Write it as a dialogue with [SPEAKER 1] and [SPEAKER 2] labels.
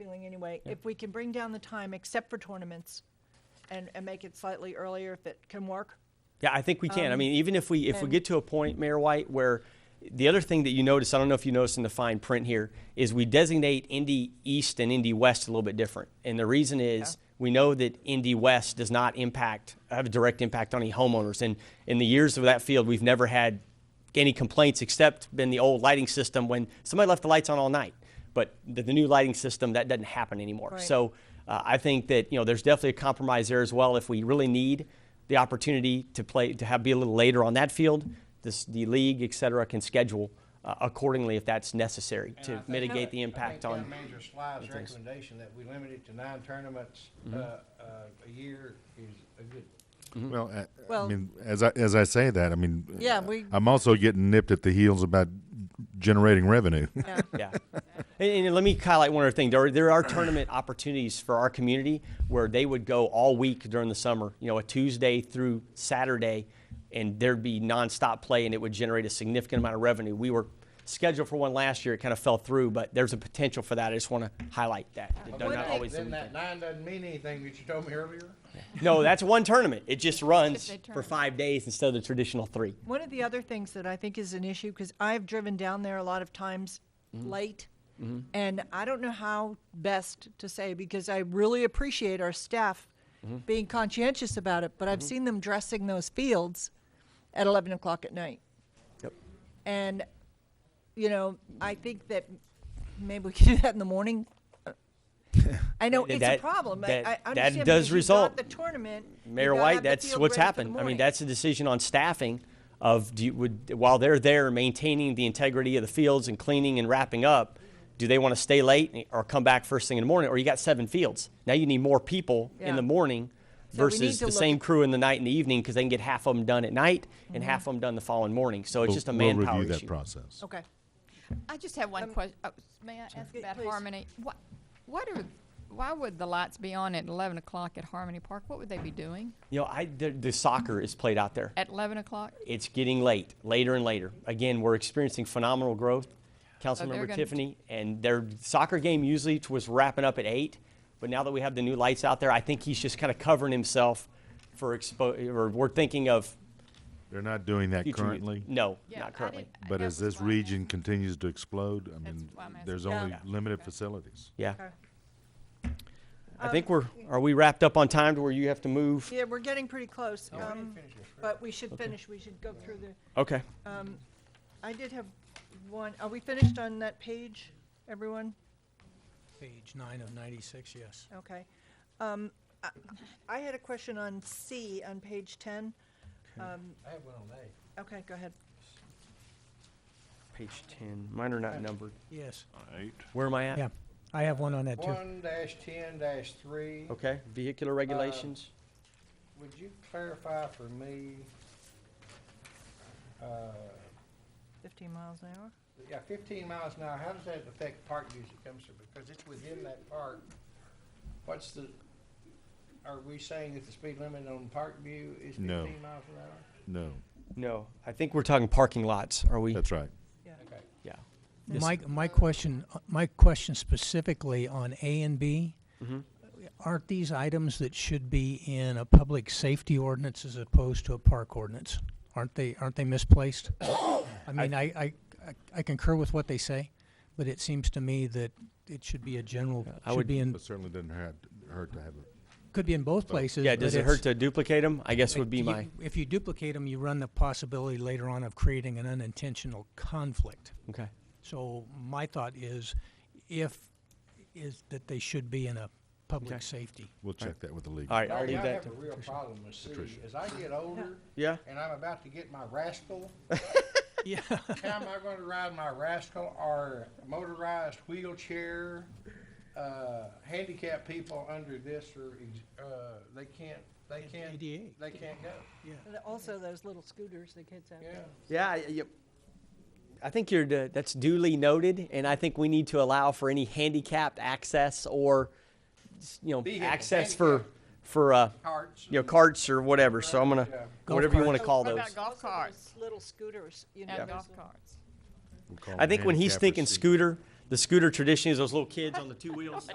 [SPEAKER 1] feeling anyway, if we can bring down the time except for tournaments and, and make it slightly earlier if it can work.
[SPEAKER 2] Yeah, I think we can. I mean, even if we if we get to a point, Mayor White, where the other thing that you notice, I don't know if you noticed in the fine print here, is we designate Indy East and Indy West a little bit different. And the reason is we know that Indy West does not impact have a direct impact on any homeowners. And in the years of that field, we've never had any complaints except been the old lighting system when somebody left the lights on all night. But the, the new lighting system that doesn't happen anymore.
[SPEAKER 1] Right.
[SPEAKER 2] So uh, I think that you know there's definitely a compromise there as well. If we really need the opportunity to play to have be a little later on that field, this, the league, et cetera, can schedule uh, accordingly if that's necessary
[SPEAKER 3] And I
[SPEAKER 2] to
[SPEAKER 3] think-
[SPEAKER 2] mitigate the impact
[SPEAKER 3] I think
[SPEAKER 2] on.
[SPEAKER 3] Town Manager Sly's
[SPEAKER 2] things. Mm-hmm.
[SPEAKER 3] recommendation that we limit it to nine tournaments, uh, uh, a year is a good one.
[SPEAKER 4] Well, I,
[SPEAKER 1] Well-
[SPEAKER 4] I mean, as I as I say that, I mean,
[SPEAKER 1] Yeah,
[SPEAKER 4] uh,
[SPEAKER 1] we-
[SPEAKER 4] I'm also getting nipped at the heels about generating revenue.
[SPEAKER 2] Yeah. And, and let me highlight one other thing. There are, there are tournament opportunities for our community where they would go all week during the summer, you know, a Tuesday through Saturday, and there'd be nonstop play and it would generate a significant amount of revenue. We were scheduled for one last year, it kind of fell through, but there's a potential for that. I just want to highlight that. that they're
[SPEAKER 1] Would
[SPEAKER 2] not
[SPEAKER 1] they-
[SPEAKER 2] always the
[SPEAKER 3] Then
[SPEAKER 2] weekend.
[SPEAKER 3] that nine doesn't mean anything that you told me earlier.
[SPEAKER 2] No, that's one tournament. It just runs
[SPEAKER 5] a
[SPEAKER 2] for
[SPEAKER 5] tournament.
[SPEAKER 2] five days instead of the traditional three.
[SPEAKER 1] One of the other things that I think is an issue, because I've driven down there a lot of times
[SPEAKER 2] Mm-hmm.
[SPEAKER 1] late, and I don't know how best to say, because I really appreciate our staff
[SPEAKER 2] Mm-hmm.
[SPEAKER 1] being conscientious about it, but I've seen them dressing those fields at 11 o'clock at night.
[SPEAKER 2] Yep.
[SPEAKER 1] And, you know, I think that maybe we can do that in the morning. I know it's a
[SPEAKER 2] That-
[SPEAKER 1] problem. I-
[SPEAKER 2] that-
[SPEAKER 1] I
[SPEAKER 2] that
[SPEAKER 1] understand because
[SPEAKER 2] does
[SPEAKER 1] you've got
[SPEAKER 2] result.
[SPEAKER 1] The tournament. you've
[SPEAKER 2] Mayor
[SPEAKER 1] gotta
[SPEAKER 2] White,
[SPEAKER 1] have the
[SPEAKER 2] that's
[SPEAKER 1] field
[SPEAKER 2] what's
[SPEAKER 1] ready for the
[SPEAKER 2] happened. I mean,
[SPEAKER 1] morning.
[SPEAKER 2] that's a decision on staffing of do you, would while they're there maintaining the integrity of the fields and cleaning and wrapping up, do they want to stay late or come back first thing in the morning? Or you got seven fields. Now you need more people
[SPEAKER 1] Yeah.
[SPEAKER 2] in the morning
[SPEAKER 1] So we need
[SPEAKER 2] versus
[SPEAKER 1] to
[SPEAKER 2] the
[SPEAKER 1] look
[SPEAKER 2] same
[SPEAKER 1] at-
[SPEAKER 2] crew in the night and the evening because they can get half of them done at night and
[SPEAKER 1] Mm-hmm.
[SPEAKER 2] half of them done the following morning. So it's just a
[SPEAKER 4] we'll
[SPEAKER 2] manpower
[SPEAKER 4] review that
[SPEAKER 2] issue.
[SPEAKER 4] process.
[SPEAKER 1] Okay.
[SPEAKER 5] I just have one question. May I ask
[SPEAKER 1] Yeah,
[SPEAKER 5] about
[SPEAKER 1] please.
[SPEAKER 5] Harmony? What, what are, why would the lights be on at eleven o'clock at Harmony Park? What would they be doing
[SPEAKER 2] You know, I, the, the soccer is played out there.
[SPEAKER 5] at eleven o'clock?
[SPEAKER 2] it's getting late, later and later. Again, we're experiencing phenomenal growth.
[SPEAKER 5] Oh, they're
[SPEAKER 2] Councilmember
[SPEAKER 5] gonna-
[SPEAKER 2] Tiffany, and their soccer game usually t- was wrapping up at eight, but now that we have the new lights out there, I think he's just kind of covering himself for expo, or we're thinking of
[SPEAKER 4] They're not doing that
[SPEAKER 2] future. Mm.
[SPEAKER 4] currently,
[SPEAKER 2] No,
[SPEAKER 5] Yeah, I
[SPEAKER 2] not currently.
[SPEAKER 5] didn't- I-
[SPEAKER 4] but
[SPEAKER 5] that
[SPEAKER 4] as
[SPEAKER 5] was
[SPEAKER 4] this
[SPEAKER 5] why I
[SPEAKER 4] region continues to explode, I mean,
[SPEAKER 5] why I'm asking.
[SPEAKER 4] there's
[SPEAKER 1] Yeah.
[SPEAKER 4] only
[SPEAKER 1] Yeah.
[SPEAKER 4] limited facilities.
[SPEAKER 2] Yeah.
[SPEAKER 1] Okay.
[SPEAKER 2] I
[SPEAKER 5] um,
[SPEAKER 2] think we're, are we wrapped up on time to where you have to move?
[SPEAKER 1] Yeah, we're getting pretty close,
[SPEAKER 2] Oh,
[SPEAKER 3] We
[SPEAKER 1] um,
[SPEAKER 3] didn't finish this.
[SPEAKER 1] but we should finish, we should go through the,
[SPEAKER 2] Okay.
[SPEAKER 1] um, I did have one, are we finished on that page, everyone?
[SPEAKER 6] Page nine of ninety-six, yes.
[SPEAKER 1] Okay. Um, I, I had a question on C on page ten. Um,
[SPEAKER 3] I have one on A.
[SPEAKER 1] okay, go ahead.
[SPEAKER 2] Page ten, mine are not numbered.
[SPEAKER 6] Yes,
[SPEAKER 2] Where am I at?
[SPEAKER 6] yeah. I have one on that too.
[SPEAKER 3] One dash ten dash three,
[SPEAKER 2] Okay,
[SPEAKER 5] Uh,
[SPEAKER 2] vehicular regulations.
[SPEAKER 3] would you clarify for me? uh,
[SPEAKER 1] Fifteen miles an hour.
[SPEAKER 3] Yeah, fifteen miles an hour, how does that affect park use that comes through? Because it's within that park. What's the, are we saying that the speed limit on Parkview is fifteen
[SPEAKER 4] No.
[SPEAKER 3] miles an hour?
[SPEAKER 4] No,
[SPEAKER 2] No, I think we're talking parking lots, are we?
[SPEAKER 4] that's right.
[SPEAKER 3] Okay.
[SPEAKER 2] Yeah. Yes.
[SPEAKER 6] My, my question, uh, my question specifically on A and B,
[SPEAKER 2] Mm-hmm.
[SPEAKER 6] aren't these items that should be in a public safety ordinance as opposed to a park ordinance? Aren't they, aren't they misplaced? I mean, I, I, I concur with what they say, but it seems to me that it should be a general,
[SPEAKER 2] I would-
[SPEAKER 6] should be in,
[SPEAKER 4] But certainly doesn't hurt, hurt to have it.
[SPEAKER 6] could be in both places.
[SPEAKER 2] Yeah, does
[SPEAKER 6] but
[SPEAKER 2] it hurt
[SPEAKER 6] it's-
[SPEAKER 2] to duplicate them? I guess would be
[SPEAKER 6] You-
[SPEAKER 2] my.
[SPEAKER 6] If you duplicate them, you run the possibility later on of creating an unintentional conflict.
[SPEAKER 2] Okay.
[SPEAKER 6] So my thought is, if, is that they should be in a public
[SPEAKER 2] Okay.
[SPEAKER 6] safety.
[SPEAKER 4] We'll check that with the league.
[SPEAKER 2] All right, I'll
[SPEAKER 3] Marty,
[SPEAKER 2] leave
[SPEAKER 3] I
[SPEAKER 2] that
[SPEAKER 3] have a
[SPEAKER 2] to.
[SPEAKER 3] real problem with C. As I get older
[SPEAKER 2] Yeah.
[SPEAKER 3] and I'm about to get my rascal,
[SPEAKER 6] Yeah.
[SPEAKER 3] how am I going to ride my rascal or motorized wheelchair? Uh, handicapped people under this or, uh, they can't, they can't,
[SPEAKER 6] ADA.
[SPEAKER 3] they can't go.
[SPEAKER 1] And also those little scooters the kids have.
[SPEAKER 3] Yeah.
[SPEAKER 2] Yeah, I- yep. I think you're, d- that's duly noted, and I think we need to allow for any handicapped access or, s- you know,
[SPEAKER 3] Vehicle,
[SPEAKER 2] access for,
[SPEAKER 3] handicap.
[SPEAKER 2] for, uh,
[SPEAKER 3] Carts.
[SPEAKER 2] you know, carts or whatever, so I'm gonna,
[SPEAKER 3] Yeah.
[SPEAKER 6] Golf
[SPEAKER 2] whatever you wanna
[SPEAKER 6] carts.
[SPEAKER 2] call
[SPEAKER 5] What
[SPEAKER 2] those.
[SPEAKER 5] about golf carts?
[SPEAKER 1] Little scooters, you know.
[SPEAKER 5] And
[SPEAKER 1] those
[SPEAKER 5] golf
[SPEAKER 1] little-
[SPEAKER 5] carts?
[SPEAKER 4] We'll call
[SPEAKER 2] I
[SPEAKER 4] it
[SPEAKER 2] think when he's
[SPEAKER 4] handicapper
[SPEAKER 2] thinking
[SPEAKER 4] seat.
[SPEAKER 2] scooter, the scooter tradition is those little kids on the two wheels.